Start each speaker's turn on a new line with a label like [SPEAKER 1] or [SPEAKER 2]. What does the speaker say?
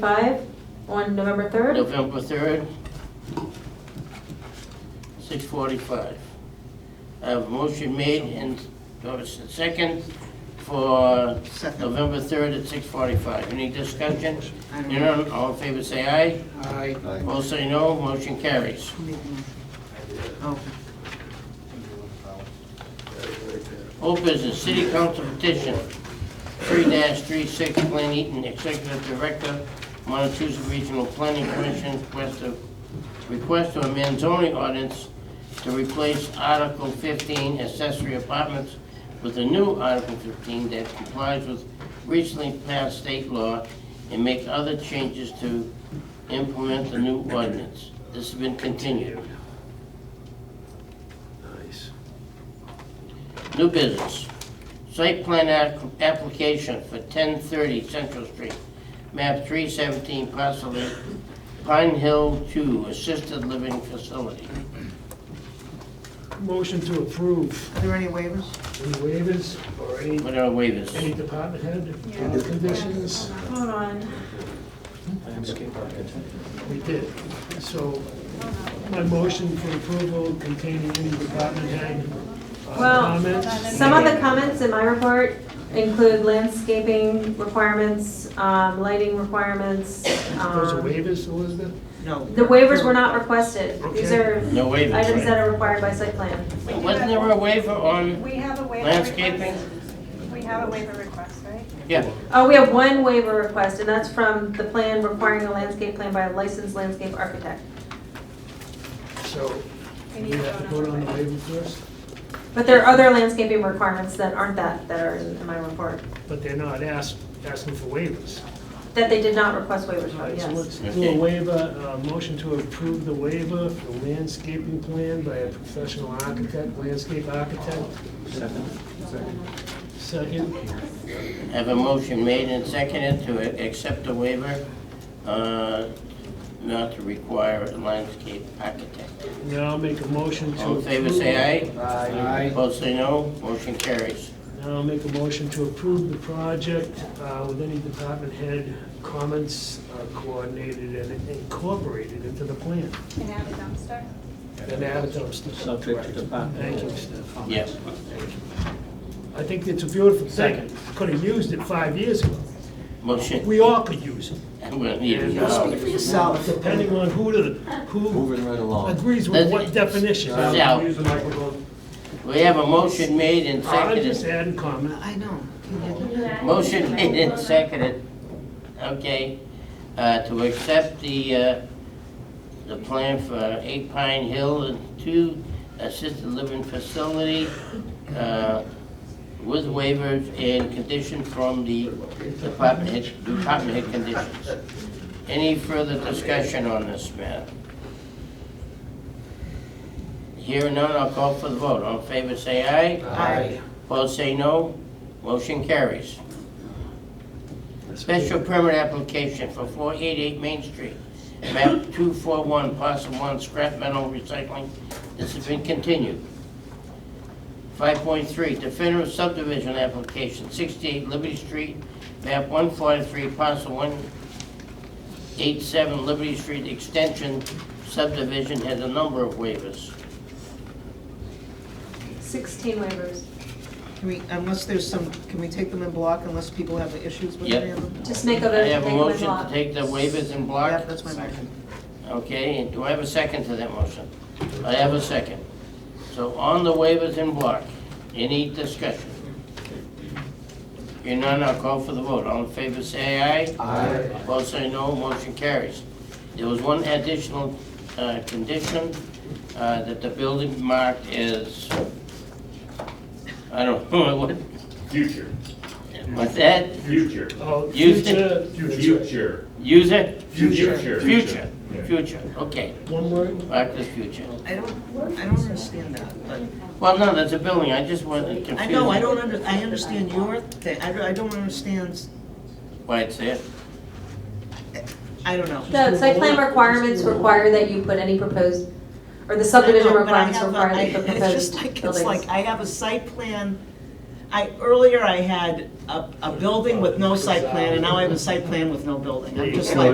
[SPEAKER 1] Five on November 3rd.
[SPEAKER 2] November 3rd, 6:45. I have a motion made and Doris the second for
[SPEAKER 3] Second.
[SPEAKER 2] November 3rd at 6:45. Any discussion?
[SPEAKER 3] I don't know.
[SPEAKER 2] None, all in favor say aye.
[SPEAKER 3] Aye.
[SPEAKER 2] All say no, motion carries.
[SPEAKER 3] Oh,
[SPEAKER 2] Old business, city council petition, 3-36 Glenn Eaton, executive director, Montezuma Regional Planning Commission, request of, request to amend zoning ordinance to replace Article 15 accessory apartments with a new Article 15 that complies with recently passed state law and make other changes to implement the new ordinance. This has been continued.
[SPEAKER 4] Nice.
[SPEAKER 2] New business. Site plan ac- application for 1030 Central Street, map 317, parcel 8, Pine Hill 2, assisted living facility.
[SPEAKER 5] Motion to approve
[SPEAKER 3] are there any waivers?
[SPEAKER 5] any waivers or any,
[SPEAKER 2] What are
[SPEAKER 5] any
[SPEAKER 2] waivers?
[SPEAKER 5] department head uh, conditions?
[SPEAKER 1] Hold on.
[SPEAKER 5] We did. So my motion for approval containing any department head uh,
[SPEAKER 1] Well,
[SPEAKER 5] comments?
[SPEAKER 1] some of the comments in my report include landscaping requirements, um, lighting requirements.
[SPEAKER 5] Those are
[SPEAKER 1] um,
[SPEAKER 5] waivers, Elizabeth?
[SPEAKER 3] No.
[SPEAKER 1] The waivers were not requested. These
[SPEAKER 5] Okay.
[SPEAKER 1] are
[SPEAKER 2] No waivers,
[SPEAKER 1] items that
[SPEAKER 2] right?
[SPEAKER 1] are required by site plan.
[SPEAKER 6] We do
[SPEAKER 2] Wasn't
[SPEAKER 6] have-
[SPEAKER 2] there a waiver on,
[SPEAKER 6] We have a waiver request.
[SPEAKER 2] Landscaping?
[SPEAKER 6] We have a waiver request, right?
[SPEAKER 2] yeah,
[SPEAKER 1] Oh, we have one waiver request, and that's from the plan requiring a landscape plan by a licensed landscape architect.
[SPEAKER 5] So
[SPEAKER 6] We
[SPEAKER 5] we
[SPEAKER 6] need to
[SPEAKER 5] have to
[SPEAKER 6] vote
[SPEAKER 5] vote
[SPEAKER 6] on
[SPEAKER 5] on the
[SPEAKER 6] the
[SPEAKER 5] waiver first,
[SPEAKER 1] But there are other landscaping requirements that aren't that, that are in in my report,
[SPEAKER 5] but they're not ask- asking for waivers.
[SPEAKER 1] that they did not request waivers
[SPEAKER 5] All
[SPEAKER 1] for,
[SPEAKER 5] right, Uh, so
[SPEAKER 1] yes.
[SPEAKER 5] let's do a waiver, uh motion to approve the waiver for landscaping plan by a professional architect, landscape architect. Second. Second.
[SPEAKER 2] have a motion made and seconded to a- accept the waiver, uh, not to require a landscape architect.
[SPEAKER 5] Now I'll make a motion to.
[SPEAKER 2] All in favor,
[SPEAKER 5] approve-
[SPEAKER 2] say aye.
[SPEAKER 3] Aye.
[SPEAKER 2] Opposed, say no, motion carries.
[SPEAKER 5] Now I'll make a motion to approve the project uh, with any department head comments uh, coordinated and incorporated into the plan.
[SPEAKER 6] Can add a dumpster.
[SPEAKER 5] And add a dumpster.
[SPEAKER 4] Subject to department.
[SPEAKER 5] Thank you, Steph.
[SPEAKER 2] Yes.
[SPEAKER 5] I think it's a beautiful thing. Could have used it five years ago.
[SPEAKER 2] Motion,
[SPEAKER 5] We all could use it.
[SPEAKER 2] I'm gonna need it
[SPEAKER 5] Yeah,
[SPEAKER 2] now.
[SPEAKER 3] Speak for yourself.
[SPEAKER 5] depending on who the, who
[SPEAKER 4] Moving right along.
[SPEAKER 5] agrees with what definition.
[SPEAKER 2] Yeah. We have a motion made and
[SPEAKER 5] I just
[SPEAKER 2] seconded.
[SPEAKER 5] adding comment.
[SPEAKER 3] I know.
[SPEAKER 2] Motion made and seconded, okay, uh, to accept the, uh, the plan for Eight Pine Hill and two assisted living facility uh, with waivers and condition from the department head, department head conditions. Any further discussion on this matter? Hearing none, I'll call for the vote. All in favor, say aye.
[SPEAKER 3] Aye.
[SPEAKER 2] Opposed, say no. Motion carries. Special permit application for 488 Main Street, map 241, parcel 1, scrap metal recycling. This has been continued. 5.3, definitive subdivision application, 68 Liberty Street, map 143, parcel 187 Liberty Street Extension subdivision has a number of waivers.
[SPEAKER 1] 16 waivers.
[SPEAKER 3] Can we, unless there's some, can we take them in block unless people have issues with
[SPEAKER 2] Yep.
[SPEAKER 3] any of them?
[SPEAKER 1] Just make of
[SPEAKER 2] I have a
[SPEAKER 1] everything one
[SPEAKER 2] motion to
[SPEAKER 1] lot.
[SPEAKER 2] take the waivers in block.
[SPEAKER 3] Yeah, that's my motion.
[SPEAKER 2] Okay, and do I have a second to that motion? I have a second. So on the waivers in block, any discussion? Hearing none, I'll call for the vote. All in favor, say aye. Aye. Opposed, say no. Motion carries. There was one additional uh, condition, uh, that the building marked as, I don't know what,
[SPEAKER 7] Future,
[SPEAKER 2] what's that?
[SPEAKER 7] future,
[SPEAKER 5] Oh,
[SPEAKER 2] Use
[SPEAKER 5] future, future.
[SPEAKER 7] future,
[SPEAKER 2] User?
[SPEAKER 7] Future.
[SPEAKER 2] Future,
[SPEAKER 7] Yeah.
[SPEAKER 2] future, okay.
[SPEAKER 5] One word?
[SPEAKER 2] Marked as future.
[SPEAKER 3] I don't, I don't understand that, but,
[SPEAKER 2] Well, no, that's a building, I just wasn't confused.
[SPEAKER 3] I know, I don't under, I understand your thing, I don't, I don't understand,
[SPEAKER 2] Why it's there.
[SPEAKER 3] I don't know.
[SPEAKER 1] The site plan requirements require that you put any proposed, or the subdivision
[SPEAKER 3] I know, but I
[SPEAKER 1] requirements
[SPEAKER 3] have a-
[SPEAKER 1] require that you
[SPEAKER 3] I-
[SPEAKER 1] put
[SPEAKER 3] It's
[SPEAKER 1] proposed
[SPEAKER 3] just like, it's like,
[SPEAKER 1] buildings.
[SPEAKER 3] I have a site plan, I, earlier I had a, a building with no site plan, and now I have a site plan with no building. I'm just like,